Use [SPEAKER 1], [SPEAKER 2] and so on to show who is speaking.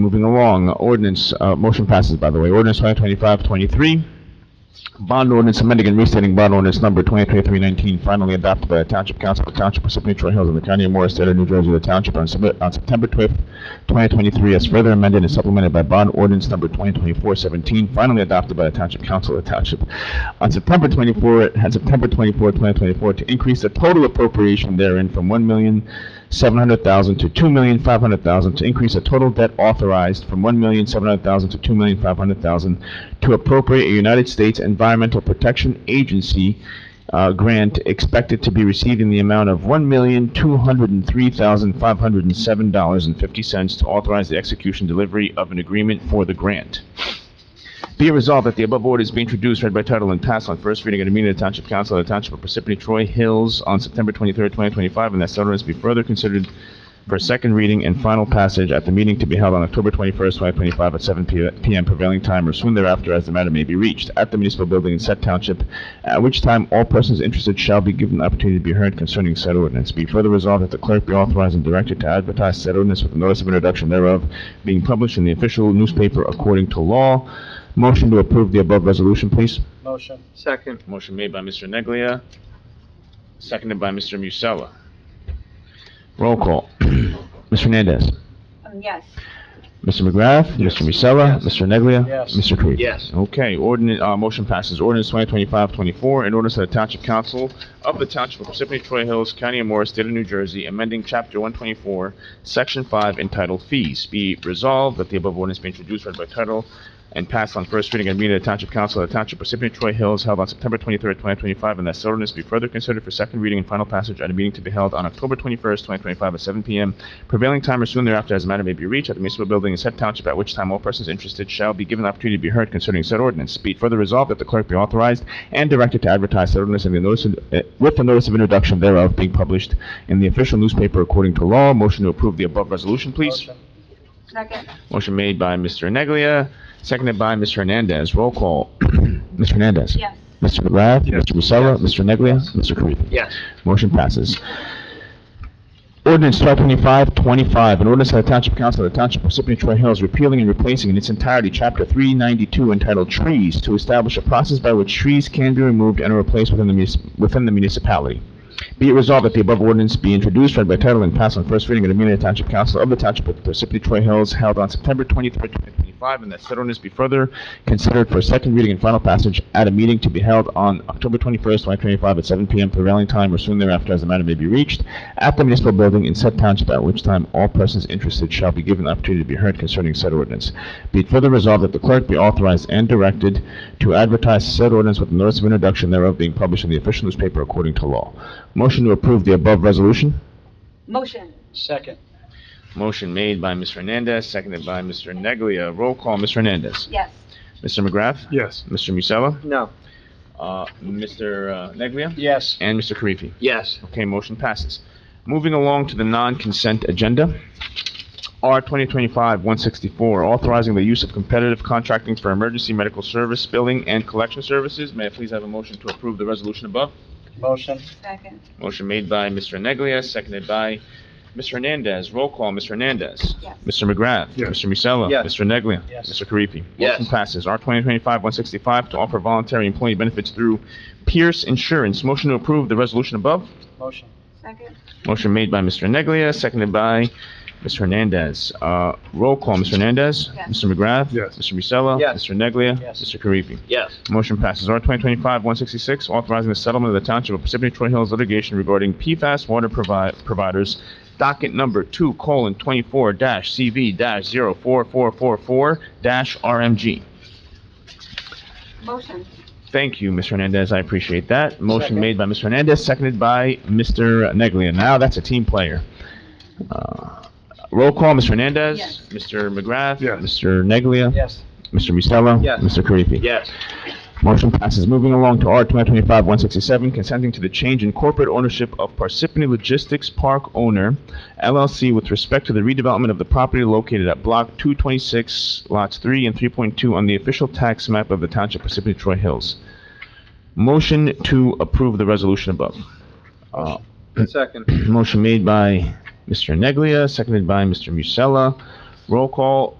[SPEAKER 1] Moving along, ordinance, uh, motion passes, by the way. Ordinance 2025-23, bond ordinance amending and restating bond ordinance number 2023-19, finally adopted by the Township Council of the Township of Parsippany Troy Hills in the County of Morris, State of New Jersey, the Township on Sep- on September 12th, 2023, as further amended and supplemented by bond ordinance number 2024-17, finally adopted by the Township Council of the Township on September 24, on September 24, 2024, to increase the total appropriation therein from 1 million seven hundred thousand to two million five hundred thousand to increase the total debt authorized from one million seven hundred thousand to two million five hundred thousand to appropriate a United States Environmental Protection Agency uh, grant expected to be received in the amount of one million two hundred and three thousand five hundred and seven dollars and fifty cents to authorize the execution delivery of an agreement for the grant. Be it resolved that the above order is being introduced, read by title, and passed on first reading at a meeting of the Township Council of the Township of Parsippany Troy Hills on September 23rd, 2025, and that said ordinance be further considered for second reading and final passage at the meeting to be held on October 21st, 2025, at 7 p- p.m. prevailing time or soon thereafter as the matter may be reached at the municipal building in said township, at which time all persons interested shall be given the opportunity to be heard concerning said ordinance. Be further resolved that the clerk be authorized and directed to advertise said ordinance with a notice of introduction thereof being published in the official newspaper according to law. Motion to approve the above resolution, please.
[SPEAKER 2] Motion.
[SPEAKER 3] Second.
[SPEAKER 1] Motion made by Mr. Neglia, seconded by Mr. Musella. Roll call. Ms. Hernandez.
[SPEAKER 4] Um, yes,
[SPEAKER 1] Mr. McGrath, Mr. Musella, Mr. Neglia.
[SPEAKER 2] Yes.
[SPEAKER 1] Mr. Karifi.
[SPEAKER 3] Yes.
[SPEAKER 1] Okay, ordinance, uh, motion passes. Ordinance 2025-24, an ordinance of the Township Council of the Township of Parsippany Troy Hills, County of Morris, State of New Jersey, amending Chapter 124, Section 5, entitled Fees. Be resolved that the above ordinance be introduced, read by title, and passed on first reading at a meeting of the Township Council of the Township of Parsippany Troy Hills held on September 23rd, 2025, and that said ordinance be further considered for second reading and final passage at a meeting to be held on October 21st, 2025, at 7 p.m. prevailing time or soon thereafter as the matter may be reached at the municipal building in said township, at which time all persons interested shall be given the opportunity to be heard concerning said ordinance. Be it further resolved that the clerk be authorized and directed to advertise said ordinance in the notice, of- uh, with the notice of introduction thereof being published in the official newspaper according to law. Motion to approve the above resolution, please.
[SPEAKER 2] Motion.
[SPEAKER 4] second,
[SPEAKER 1] Motion made by Mr. Neglia, seconded by Mr. Hernandez. Roll call. Mr. Hernandez.
[SPEAKER 4] yes,
[SPEAKER 1] Mr. McGrath.
[SPEAKER 3] Yes.
[SPEAKER 1] Mr. Musella.
[SPEAKER 3] Yes.
[SPEAKER 1] Mr. Neglia. Mr. Karifi.
[SPEAKER 3] Yes.
[SPEAKER 1] Motion passes. Ordinance 1225-25, an ordinance of the Township Council of the Township of Parsippany Troy Hills repealing and replacing in its entirety Chapter 392 entitled Trees to establish a process by which trees can be removed and are replaced within the munis- within the municipality. Be it resolved that the above ordinance be introduced, read by title, and passed on first reading at a meeting of the Township Council of the Township of Parsippany Troy Hills held on September 23rd, 2025, and that said ordinance be further considered for second reading and final passage at a meeting to be held on October 21st, 2025, at 7 p.m. prevailing time or soon thereafter as the matter may be reached at the municipal building in said township, at which time all persons interested shall be given the opportunity to be heard concerning said ordinance. Be it further resolved that the clerk be authorized and directed to advertise said ordinance with notice of introduction thereof being published in the official newspaper according to law. Motion to approve the above resolution?
[SPEAKER 4] motion,
[SPEAKER 2] Second.
[SPEAKER 1] Motion made by Ms. Hernandez, seconded by Mr. Neglia. Roll call, Ms. Hernandez.
[SPEAKER 4] yes,
[SPEAKER 1] Mr. McGrath.
[SPEAKER 2] Yes.
[SPEAKER 1] Mr. Musella.
[SPEAKER 3] No.
[SPEAKER 1] Uh, Mr. uh, Neglia.
[SPEAKER 2] Yes.
[SPEAKER 1] And Mr. Karifi.
[SPEAKER 3] Yes.
[SPEAKER 1] Okay, motion passes. Moving along to the non-consent agenda. R 2025-164, authorizing the use of competitive contracting for emergency medical service, billing, and collection services. May I please have a motion to approve the resolution above?
[SPEAKER 2] Motion.
[SPEAKER 4] second,
[SPEAKER 1] Motion made by Mr. Neglia, seconded by Ms. Hernandez. Roll call, Ms. Hernandez.
[SPEAKER 4] yes,
[SPEAKER 1] Mr. McGrath.
[SPEAKER 2] Yes.
[SPEAKER 1] Mr. Musella.
[SPEAKER 3] Yes.
[SPEAKER 1] Mr. Neglia.
[SPEAKER 2] Yes.
[SPEAKER 1] Mr. Karifi.
[SPEAKER 3] Yes.
[SPEAKER 1] Motion passes. R 2025-165, to offer voluntary employee benefits through Pierce Insurance. Motion to approve the resolution above?
[SPEAKER 2] Motion.
[SPEAKER 4] second,
[SPEAKER 1] Motion made by Mr. Neglia, seconded by Ms. Hernandez. Uh, roll call, Ms. Hernandez?
[SPEAKER 4] Yes.
[SPEAKER 1] Mr. McGrath?
[SPEAKER 2] Yes.
[SPEAKER 1] Mr. Musella?
[SPEAKER 3] Yes.
[SPEAKER 1] Mr. Neglia?
[SPEAKER 2] Yes.
[SPEAKER 1] Mr. Karifi.
[SPEAKER 3] Yes.
[SPEAKER 1] Motion passes. R. 2025-166, authorizing the settlement of the Township of Parsippany Troy Hills litigation regarding PFAS water provi- providers, docket number 2:24-CV-04444-RMG.
[SPEAKER 4] motion,
[SPEAKER 1] Thank you, Ms. Hernandez, I appreciate that. Motion
[SPEAKER 2] Second.
[SPEAKER 1] made by Ms. Hernandez, seconded by Mr. Neglia. Now that's a team player. Uh, Roll call, Ms. Hernandez.
[SPEAKER 4] Yes.
[SPEAKER 1] Mr. McGrath.
[SPEAKER 2] Yes.
[SPEAKER 1] Mr. Neglia.
[SPEAKER 2] Yes.
[SPEAKER 1] Mr. Musella.
[SPEAKER 3] Yes.
[SPEAKER 1] Mr. Karifi.
[SPEAKER 3] Yes.
[SPEAKER 1] Motion passes. Moving along to R. 2025-167, consenting to the change in corporate ownership of Parsippany Logistics Park Owner LLC with respect to the redevelopment of the property located at Block 226, Lots 3 and 3.2 on the official tax map of the Township of Parsippany Troy Hills. Motion to approve the resolution above. Uh,
[SPEAKER 3] Second.
[SPEAKER 1] Motion made by Mr. Neglia, seconded by Mr. Musella. Roll call,